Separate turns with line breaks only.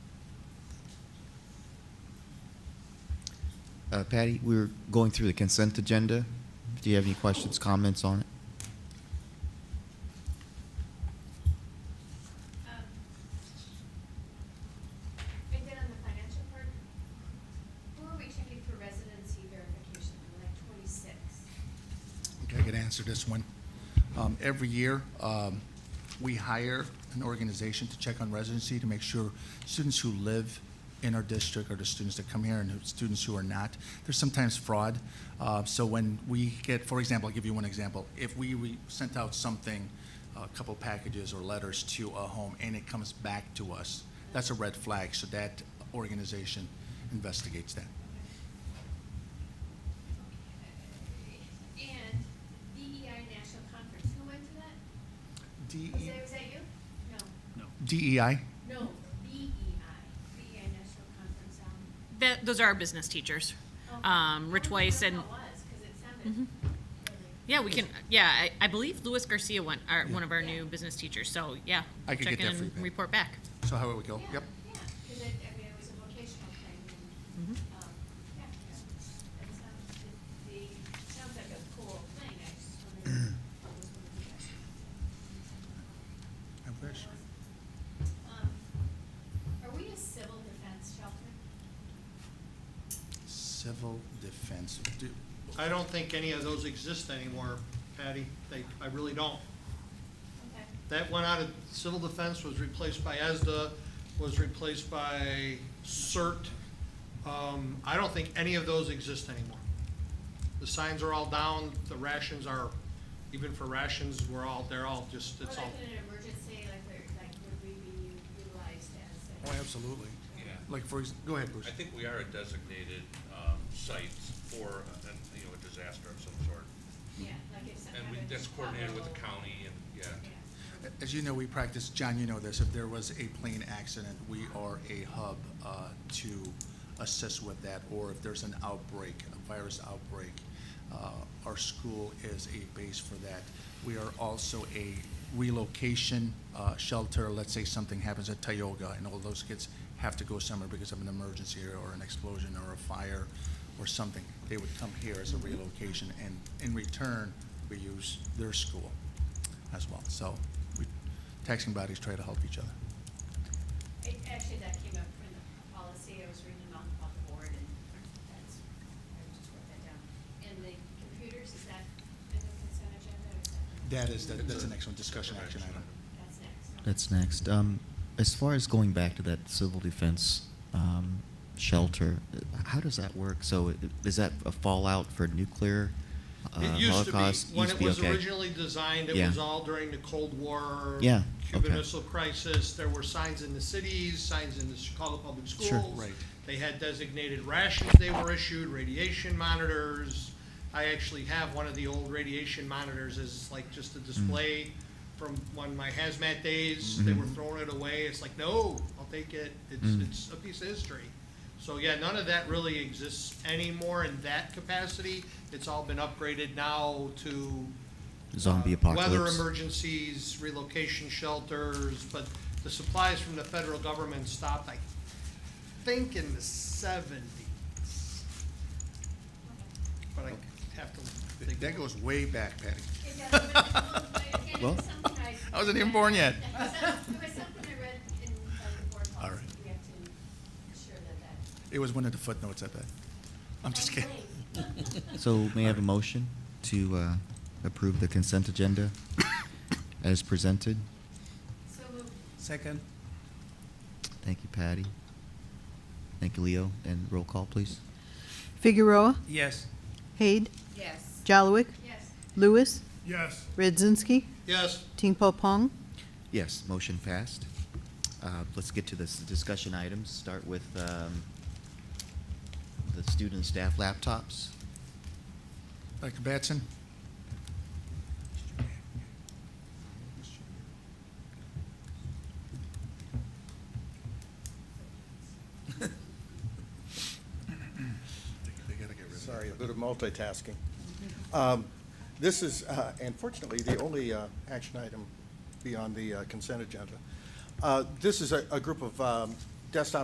Uh, Patty, we were going through the consent agenda. Do you have any questions, comments on it?
Um, And then on the financial part, who are we checking for residency verification, on like twenty-six?
Okay, I can answer this one. Um, Every year, um, we hire an organization to check on residency to make sure students who live in our district or the students that come here and the students who are not. There's sometimes fraud. Uh, So when we get, for example, I'll give you one example. If we we sent out something, a couple packages or letters to a home, and it comes back to us, that's a red flag. So that organization investigates that.
And DEI National Conference, who went to that? Was
E,
that, was that you? No,
DEI?
no, E BEI, BEI National Conference, um.
That, those are our business teachers.
okay.
Um, Rich
I wondered
Weiss
who
and,
that was, 'cause it sounded
Mhm.
really-
yeah, we can, yeah, I, I believe Luis Garcia went, our,
Yeah.
one of our
Yeah.
new business teachers, so, yeah.
I could
check
get that
in
for you,
and
Pat.
Report back.
So how would we go?
Yeah,
Yep.
Yeah, because it, I mean, it was a vocational thing, and, um, yeah, yeah. It sounds, it, the, sounds like a cool thing, I just wondered what was one of the
I wish.
Um, are we a civil defense shelter?
Civil defense. Do-
I don't think any of those exist anymore, Patty. They, I really don't.
Okay.
That went out of, civil defense was replaced by E ESDA, was replaced by CERT. Um, I don't think any of those exist anymore. The signs are all down, the rations are, even for rations, we're all, they're all just,
Or
it's all.
like in an emergency, like, where, like, would we be utilized as a?
Oh, absolutely.
Yeah.
Like, for, ex- go ahead, Bruce.
I think we are a designated um, site for, uh, an- you know, a disaster of some sort.
Yeah, like if some
And
kind
we,
of
that's coordinated with the
trouble-
county and, yeah.
Yeah.
As you know, we practice, John, you know this, if there was a plane accident, we are a hub uh, to assist with that. Or if there's an outbreak, a virus outbreak, uh, our school is a base for that. We are also a relocation uh, shelter. Let's say something happens at Tioga and all those kids have to go somewhere because of an emergency or an explosion or a fire or something. They would come here as a relocation and in return, we use their school as well. So we, taxing bodies try to help each other.
It, actually, that came up from the policy, I was reading about, about the board, and that's, I just wrote that down. And the computers, is that in the consent agenda, or is that?
That is, the- that's
It's a-
the next one, discussion action item.
That's next. okay.
That's next. Um, as far as going back to that civil defense um, shelter, how does that work? So i- is that a fallout for nuclear uh,
It used to
Holocaust?
be, when
Used
it
to be,
was
okay.
originally designed, it
Yeah.
was all during the Cold War.
Yeah,
Cuban
okay.
Missile Crisis, there were signs in the cities, signs in the Chicago Public Schools.
Sure.
Right.
They had designated rations they were issued, radiation monitors. I actually have one of the old radiation monitors as like just a display from when my hazmat days, they were throwing it away, it's like, no, I'll take it, it's, it's a piece of history. So, yeah, none of that really exists anymore in that capacity, it's all been upgraded now to. uh,
Zombie
Weather
apocalypse.
emergencies, relocation shelters, but the supplies from the federal government stopped, I think in the seventies, but I have to
Th-
think.
That goes way back, Patty.
It does, but it's a little- but again, it
Well-
was something I.
I wasn't even born yet.
It was some- it was something I read in, uh, the board
All
policy,
right.
we have to ensure that that.
It was one of the footnotes, I bet. I'm just kidding.
So may I have a motion to uh, approve the consent agenda as presented?
So moved.
Second.
Thank you, Patty. Thank you, Leo. And roll call, please.
Figueroa,
Yes.
Haid,
Yes.
Jalowick,
Yes.
Lewis,
Yes.
Redzinski,
Yes,
Tingpo Pong,
Yes, motion passed. Uh, Let's get to the s- discussion items. Start with um, the student and staff laptops.
Dr. Batson?
Sorry, a bit of multitasking. Um, This is, uh, unfortunately, the only uh, action item beyond the uh, consent agenda. Uh, This is a a group of um, desktop